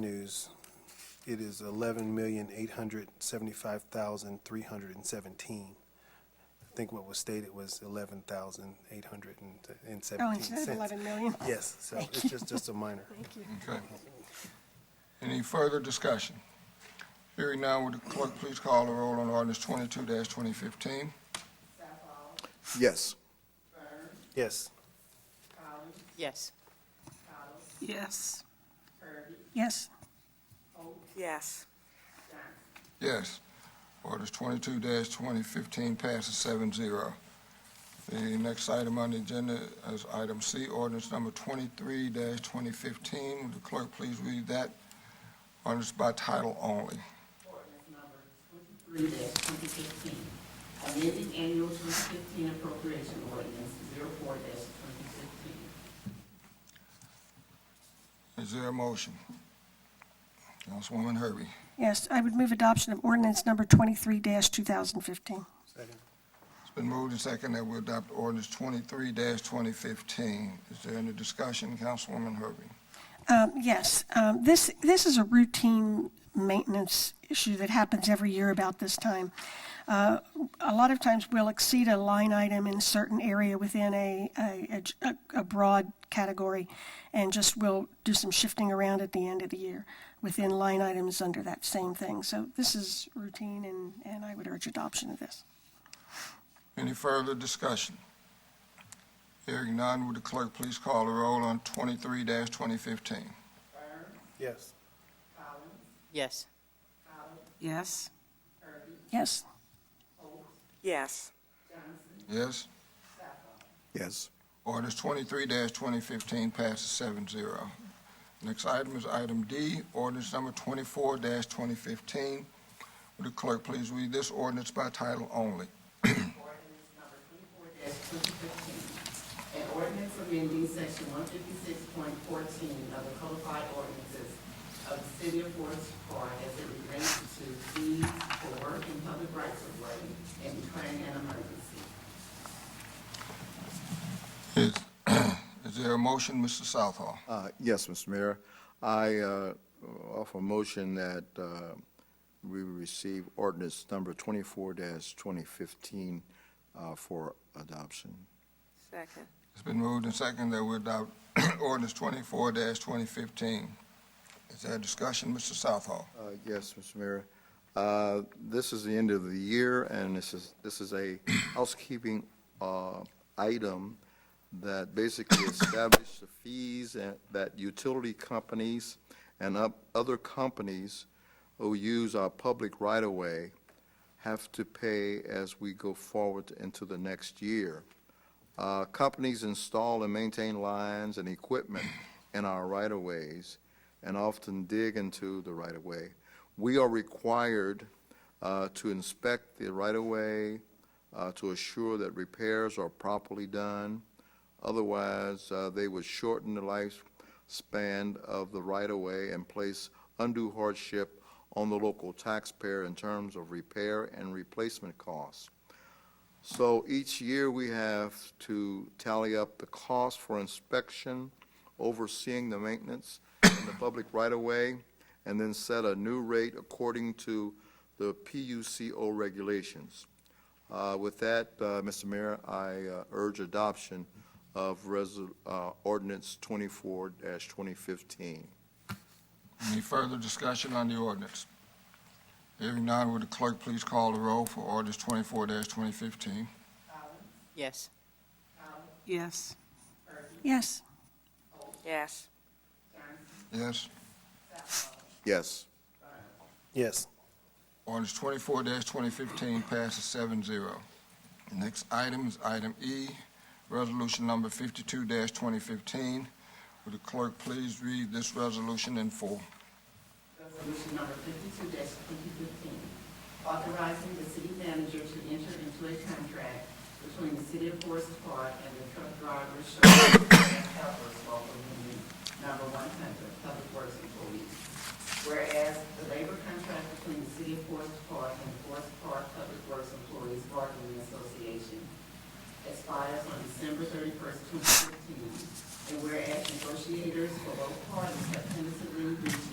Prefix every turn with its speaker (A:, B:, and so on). A: revenues, it is eleven million, eight hundred seventy-five thousand, three hundred and seventeen. I think what was stated was eleven thousand, eight hundred and
B: Oh,
A: seventeen
B: instead of
A: cents.
B: 11 million?
A: Yes, so it's just, just a minor.
C: Okay. Any further discussion? Hearing now, would the clerk please call the roll on ordinance twenty-two twenty fifteen?
D: Yes.
A: Yes,
E: Yes.
B: Yes. Yes.
E: Yes.
C: Yes. Ordinance twenty-two twenty fifteen passes seven zero. The next item on the agenda is item C, ordinance number twenty-three twenty fifteen. Would the clerk please read that? Ordinance by title only.
F: Ordinance number twenty-three twenty fifteen, amending annual twenty fifteen appropriation ordinance 4 twenty fifteen.
C: Is there a motion? Councilwoman Herbie.
B: Yes, I would move adoption of ordinance number 23-2015.
C: It's been moved and seconded that we adopt ordinance twenty-three twenty fifteen. Is there any discussion, Councilwoman Herbie?
B: Um, Yes, um, this, this is a routine maintenance issue that happens every year about this time. Uh, A lot of times, we'll exceed a line item in a certain area within a, a- a- a broad category, and just we'll do some shifting around at the end of the year within line items under that same thing. So this is routine, and, and I would urge adoption of this.
C: Any further discussion? Hearing none, would the clerk please call the roll on twenty-three twenty fifteen?
A: yes,
E: Yes.
G: Yes.
B: Yes,
E: Yes.
C: Yes?
D: Yes.
C: Ordinance twenty-three twenty fifteen passes seven zero. Next item is item D, ordinance number twenty-four twenty fifteen. Would the clerk please read this ordinance by title only?
F: Ordinance number twenty-four twenty fifteen, an ordinance amending section one fifty-six point fourteen of the codified ordinances of the city of Forest Park as it relates to fees for work and public rights of way and declaring an emergency.
C: Is, is there a motion, Mr. Southall?
D: Uh, Yes, Mr. Mayor. I uh, offer a motion that uh, we receive ordinance number 24-2015 uh, for adoption.
E: Second.
C: It's been moved and seconded that we adopt ordinance twenty-four twenty fifteen. Is there a discussion, Mr. Southall?
D: Uh, Yes, Mr. Mayor. Uh, This is the end of the year, and this is, this is a housekeeping uh, item that basically established the fees and- that utility companies and up- other companies who use our public right-of-way have to pay as we go forward into the next year. Uh, Companies install and maintain lines and equipment in our right-of-ways and often dig into the right-of-way. We are required uh, to inspect the right-of-way uh, to assure that repairs are properly done. Otherwise, uh, they would shorten the lifespan of the right-of-way and place undue hardship on the local taxpayer in terms of repair and replacement costs. So each year, we have to tally up the cost for inspection, overseeing the maintenance in the public right-of-way, and then set a new rate according to the PUCO regulations. Uh, With that, uh, Mr. Mayor, I uh, urge adoption of Resol- uh, ordinance 24-2015.
C: Any further discussion on the ordinance? Hearing none, would the clerk please call the roll for ordinance twenty-four twenty fifteen?
E: Yes.
G: Yes.
B: yes,
E: Yes.
C: Yes?
D: Yes.
A: yes,
C: Ordinance twenty-four twenty fifteen passes seven zero. Next item is item E, resolution number fifty-two twenty fifteen. Would the clerk please read this resolution in full?
F: Resolution number fifty-two twenty fifteen, authorizing the city manager to enter into a contract between the city of Forest Park and the truck driver Sherman and helpers local union number one hundred, public works employees. Whereas the labor contract between the city of Forest Park and the Forest Park Public Works Employees Bargaining Association expires on December thirty-first, twenty fifteen. And whereas negotiators for both parties have tentatively reached